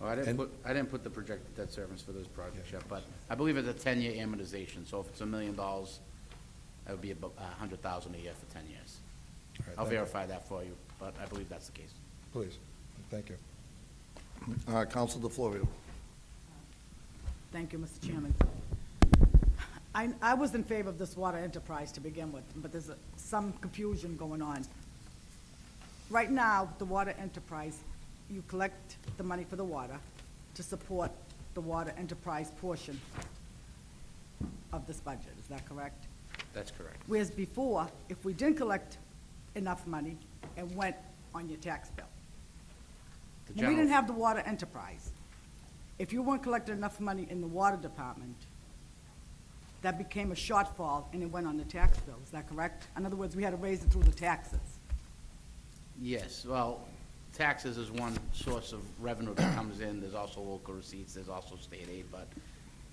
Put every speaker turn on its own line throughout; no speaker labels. Oh, I didn't
And-
put, I didn't put the projected debt service for those projects yet, but I believe it's a ten-year amortization, so if it's a million dollars, that would be about a hundred thousand a year for ten years.
All right,
I'll
thank you.
verify that for you, but I believe that's the case.
Please, thank you. Uh, Counsel DeFlorio.
Thank you, Mr. Chairman. I, I was in favor of this water enterprise to begin with, but there's a- some confusion going on. Right now, the water enterprise, you collect the money for the water to support the water enterprise portion of this budget, is that correct?
That's correct.
Whereas before, if we didn't collect enough money, it went on your tax bill.
The
When we didn't
general-
have the water enterprise, if you weren't collecting enough money in the water department, that became a shortfall and it went on the tax bill, is that correct? In other words, we had to raise it through the taxes.
Yes, well, taxes is one source of revenue that comes in, there's also local receipts, there's also state aid, but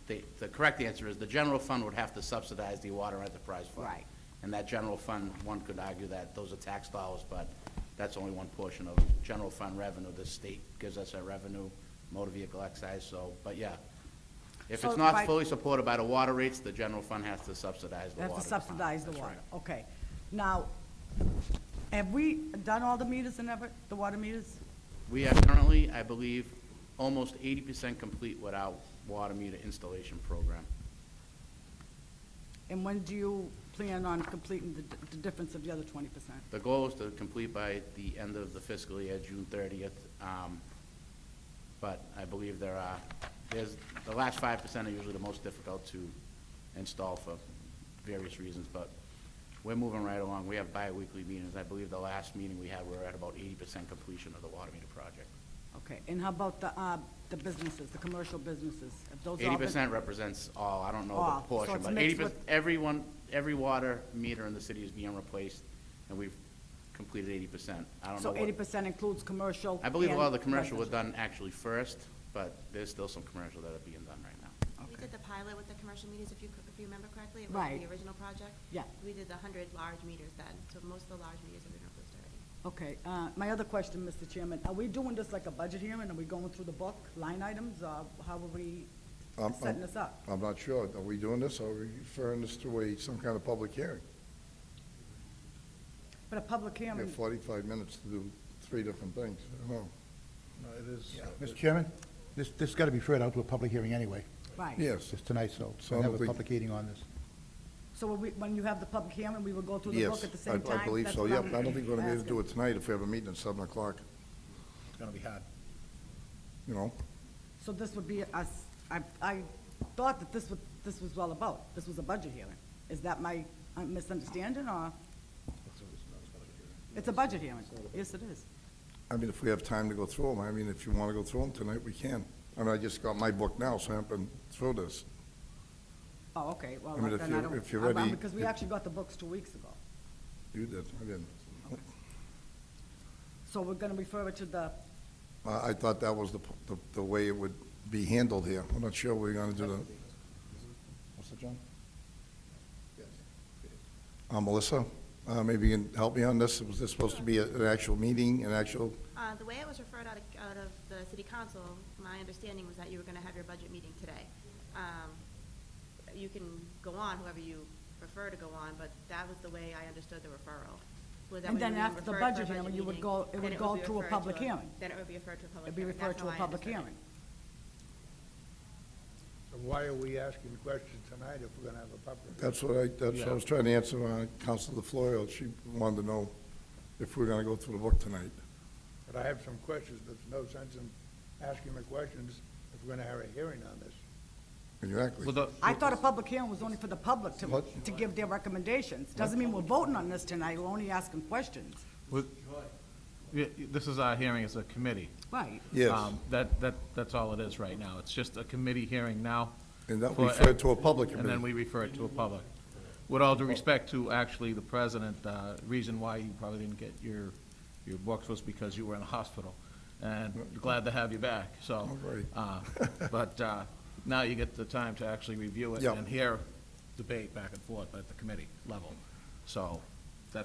the, the correct answer is the general fund would have to subsidize the water enterprise fund.
Right.
And that general fund, one could argue that those are tax dollars, but that's only one portion of general fund revenue. The state gives us our revenue, motor vehicle excise, so, but yeah. If
So
it's not
by-
fully supported by the water rates, the general fund has to subsidize the
They
water.
have to
fund.
subsidize the
That's right.
water, okay. Now, have we done all the meters and ever, the water meters?
We are currently, I believe, almost eighty percent complete with our water meter installation program.
And when do you plan on completing the, the difference of the other twenty percent?
The goal is to complete by the end of the fiscal year, June thirtieth. um, But I believe there are, there's, the last five percent are usually the most difficult to install for various reasons, but we're moving right along. We have bi-weekly meetings. I believe the last meeting we had, we were at about eighty percent completion of the water meter project.
Okay, and how about the, uh, the businesses, the commercial businesses? Have those all been-
Eighty percent represents all, I don't know
All,
the
so
portion,
it's
but
mixed
eighty percent,
with-
everyone, every water meter in the city is being replaced, and we've completed eighty percent. I don't know
So eighty
what,
percent includes commercial?
I believe a lot of the
and
commercial was
residential.
done actually first, but there's still some commercial that are being done right now.
Okay.
We did the pilot with the commercial meters, if you, c- if you remember correctly, it was
Right.
the original project.
Yeah.
We did the hundred large meters then, so most of the large meters have been replaced already.
Okay, uh, my other question, Mr. Chairman, are we doing this like a budget hearing? Are we going through the book, line items, or how are we
I'm-
setting
I'm-
this up?
I'm not sure, are we doing this, or are we referring this to a, some kind of public hearing?
But a public
We have
hearing,
45 minutes to do three different things, I don't know.
Mr. Chairman, this, this got to be referred out to a public hearing anyway.
right.
Yes,
It's tonight, so
So I
we'll
don't
have a
think-
public hearing on this.
So when we, when you have the public hearing, we will go through the book
yes,
at the
I
same time?
I believe
That's
so,
what
yeah, I
I'm
don't think we're going to be able to do
asking.
it tonight if we have a meeting at 7 o'clock,
It's going to be hard.
you know?
So this would be us, I, I thought that this would, this was all about, this was a budget hearing. Is that my uh, misunderstanding, or? It's a budget hearing, yes, it is.
I mean, if we have time to go through them, I mean, if you want to go through them tonight, we can. I mean, I just got my book now, so I haven't been through this.
Oh, okay, well,
I mean, if
then I
you're-
don't,
if you're
I- well,
ready-
because we
if-
actually got the books two weeks ago.
You did, I didn't.
So we're gonna refer it to the,
I, I thought that was the, p- the- the way it would be handled here. I'm not sure we're going to do the, what's that, John? Uh, Melissa, uh, maybe you can help me on this. Was this supposed to be a- an actual meeting, an actual,
Uh, the way it was referred out of, out of the city council, my understanding was that you were gonna have your budget meeting today. Um, you can go on, whoever you prefer to go on, but that was the way I understood the referral. Was that
And
we
then
were
after the
referred for a
budget hearing, you would
meeting,
go- it
then
would go
be
to a
referred
public hearing.
Then it would be referred to a public
it'd be
hearing.
referred
That's
to a
how I
public
understood it.
hearing.
So why are we asking questions tonight if we're gonna have a public?
that's what I, that's what I was trying to answer, uh, Counselor DeFlorio. She wanted to know if we're going to go through the book tonight.
But I have some questions, but there's no sense in asking the questions if we're gonna have a hearing on this.
Exactly.
I thought a public hearing was only for the public to,
What?
to give their recommendations. Doesn't mean we're voting on this tonight, we're only asking questions.
With- Yeah, This is our hearing as a committee.
Right.
Yes,
Um, That, that, that's all it is right now. It's just a committee hearing now.
and that
for-
referred to a public
And then
committee.
we refer it to a public. With all due respect to actually the president, uh, reason why you probably didn't get your, your books was because you were in the hospital. And glad to have you back, so.
All right.
uh, But uh, now you get the time to actually review it
Yeah.
and hear debate back and forth at the committee level. So